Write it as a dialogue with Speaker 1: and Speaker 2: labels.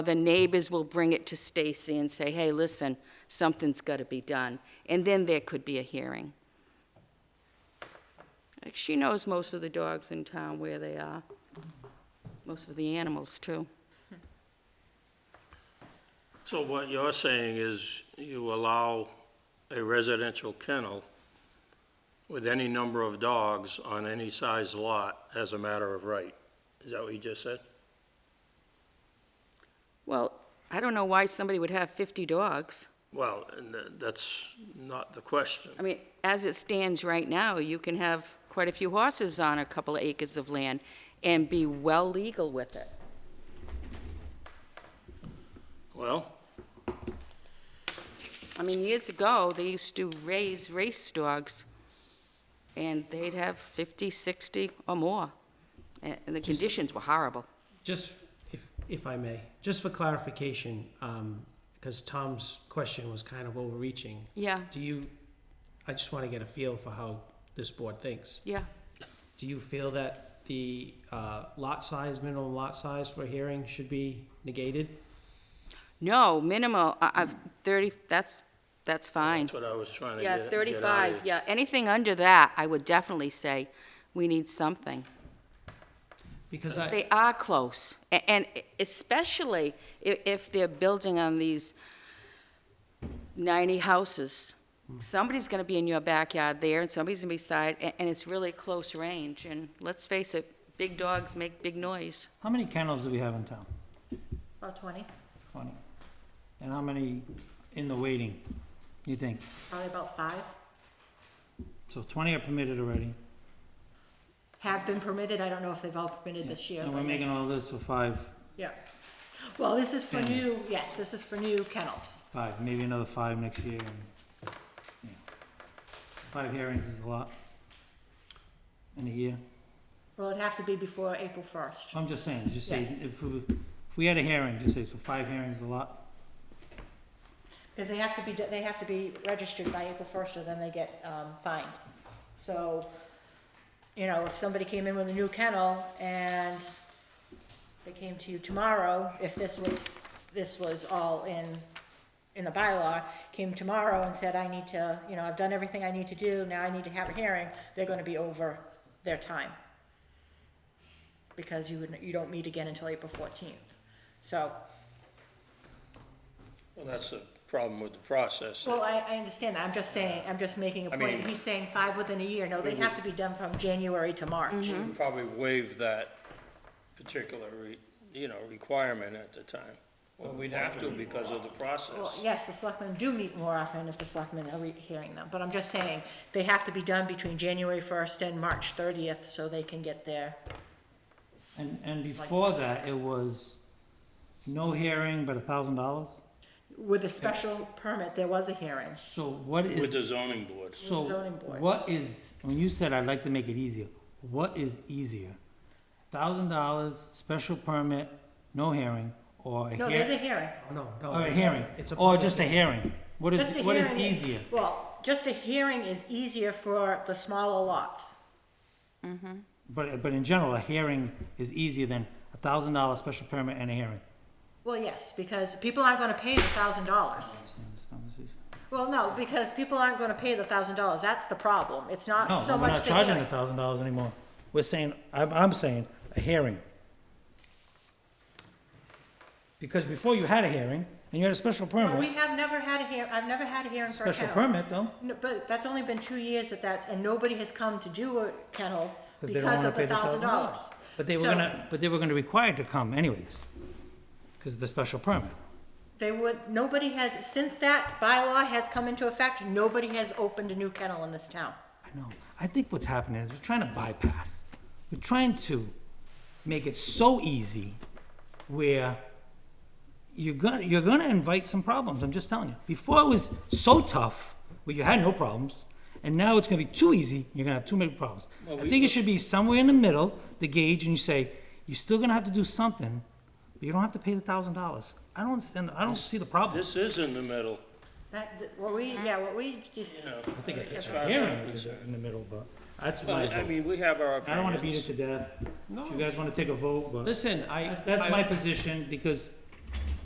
Speaker 1: the neighbors will bring it to Stacy and say, hey, listen, something's got to be done. And then there could be a hearing. Like, She knows most of the dogs in town where they are, most of the animals, too.
Speaker 2: So what you're saying is you allow a residential kennel with any number of dogs on any size lot as a matter of right? Is that what you just said?
Speaker 1: Well, I don't know why somebody would have 50 dogs.
Speaker 2: Well, and th- that's not the question.
Speaker 1: I mean, as it stands right now, you can have quite a few horses on a couple of acres of land and be well legal with it.
Speaker 2: Well,
Speaker 1: I mean, years ago, they used to raise race dogs, and they'd have 50, 60 or more, a- and the conditions were horrible.
Speaker 3: Just, if, if I may, just for clarification, um, because Tom's question was kind of overreaching.
Speaker 1: Yeah,
Speaker 3: Do you, I just want to get a feel for how this board thinks.
Speaker 1: yeah.
Speaker 3: Do you feel that the, uh, lot size, minimum lot size for a hearing should be negated?
Speaker 1: No, minimal, I- I've 30, that's, that's fine.
Speaker 2: that's what I was trying to get
Speaker 1: Yeah,
Speaker 2: get out of
Speaker 1: 35,
Speaker 2: you.
Speaker 1: yeah, anything under that, I would definitely say, we need something.
Speaker 3: Because I,
Speaker 1: They are close, a- and especially i- if they're building on these 90 houses. Somebody's going to be in your backyard there, and somebody's going to be side, a- and it's really close range, and let's face it, big dogs make big noise.
Speaker 4: How many kennels do we have in town?
Speaker 5: About 20,
Speaker 4: Twenty. And how many in the waiting, you think?
Speaker 5: probably about five,
Speaker 4: So twenty are permitted already,
Speaker 5: have been permitted. I don't know if they've all permitted this year.
Speaker 4: and
Speaker 5: but
Speaker 4: we're making
Speaker 5: yes.
Speaker 4: all this for five,
Speaker 5: Yeah. Well, this is for new, yes, this is for new kennels.
Speaker 4: five, maybe another five next year. and, yeah. Five hearings is a lot in a year.
Speaker 5: Well, it'd have to be before April 1st.
Speaker 4: I'm just saying, just say, if we, if we had a hearing, just say, so five hearings is a lot.
Speaker 5: Because they have to be, they have to be registered by April 1st or then they get um, fined. So, you know, if somebody came in with a new kennel and they came to you tomorrow, if this was, this was all in, in the bylaw, came tomorrow and said, I need to, you know, I've done everything I need to do, now I need to have a hearing, they're gonna be over their time. Because you would, you don't meet again until April 14th. So,
Speaker 2: Well, that's the problem with the process.
Speaker 5: Well, I, I understand that, I'm just saying, I'm just making a
Speaker 2: I
Speaker 5: point,
Speaker 2: mean-
Speaker 5: he's saying five within a year, no, they have to be done from January to
Speaker 2: Mm.
Speaker 5: March.
Speaker 2: Probably waive that particular, re- you know, requirement at the time. Well, we'd have to because of the
Speaker 5: Well,
Speaker 2: process.
Speaker 5: yes, the selectmen do meet more often if the selectmen are re- hearing them, but I'm just saying, they have to be done between January first and March thirtieth, so they can get their,
Speaker 4: And, and before that, it was no hearing but a thousand dollars?
Speaker 5: with a special permit, there was a hearing.
Speaker 4: So what is?
Speaker 2: With the zoning board.
Speaker 4: So
Speaker 5: Zoning board.
Speaker 4: what is, when you said I'd like to make it easier, what is easier? Thousand dollars, special permit, no hearing, or a
Speaker 5: No, there's a
Speaker 4: hearing?
Speaker 5: hearing,
Speaker 3: no, no.
Speaker 4: Or a hearing,
Speaker 3: It's a
Speaker 4: or
Speaker 3: public
Speaker 4: just a hearing? What
Speaker 5: just a
Speaker 4: is,
Speaker 5: hearing.
Speaker 4: what is easier?
Speaker 5: Well, just a hearing is easier for the smaller lots.
Speaker 4: But, but in general, a hearing is easier than a thousand dollar special permit and a hearing.
Speaker 5: Well, yes, because people aren't gonna pay the thousand dollars.
Speaker 4: Understand this conversation?
Speaker 5: Well, no, because people aren't gonna pay the thousand dollars, that's the problem, it's
Speaker 4: No,
Speaker 5: not so
Speaker 4: we're
Speaker 5: much
Speaker 4: not
Speaker 5: the
Speaker 4: charging a
Speaker 5: hearing.
Speaker 4: thousand dollars anymore. We're saying, I'm, I'm saying, a hearing. Because before you had a hearing, and you had a special
Speaker 5: No, We
Speaker 4: permit,
Speaker 5: have never had a hear, I've never had a hearing for a
Speaker 4: special
Speaker 5: kennel.
Speaker 4: permit though.
Speaker 5: No, But that's only been two years that that's, and nobody has come to do a kennel
Speaker 4: 'Cause they don't
Speaker 5: because
Speaker 4: wanna
Speaker 5: of the
Speaker 4: pay the
Speaker 5: thousand dollars.
Speaker 4: $1,000. But they were gonna, but they were gonna require to come anyways, because of the special permit.
Speaker 5: They would, nobody has, since that bylaw has come into effect, nobody has opened a new kennel in this town.
Speaker 4: I know, I think what's happening is we're trying to bypass, we're trying to make it so easy where you're gonna, you're gonna invite some problems, I'm just telling you. Before it was so tough, where you had no problems, and now it's gonna be too easy, you're gonna have too many problems. I think it should be somewhere in the middle, the gauge, and you say, you're still gonna have to do something, but you don't have to pay the thousand dollars. I don't understand, I don't see the problem.
Speaker 2: This is in the middle.
Speaker 5: That, that- what we, yeah, what we just,
Speaker 4: I think
Speaker 2: As
Speaker 4: a
Speaker 2: far as
Speaker 4: hearing
Speaker 2: I'm
Speaker 4: is
Speaker 2: concerned.
Speaker 4: in the middle, but that's
Speaker 2: Well,
Speaker 4: my
Speaker 2: I
Speaker 4: vote.
Speaker 2: mean, we have our
Speaker 4: I don't wanna beat
Speaker 2: opinions.
Speaker 4: it to death. If
Speaker 3: No.
Speaker 4: you guys wanna take a vote, but
Speaker 3: Listen, I.
Speaker 4: that's
Speaker 3: I-
Speaker 4: my position, because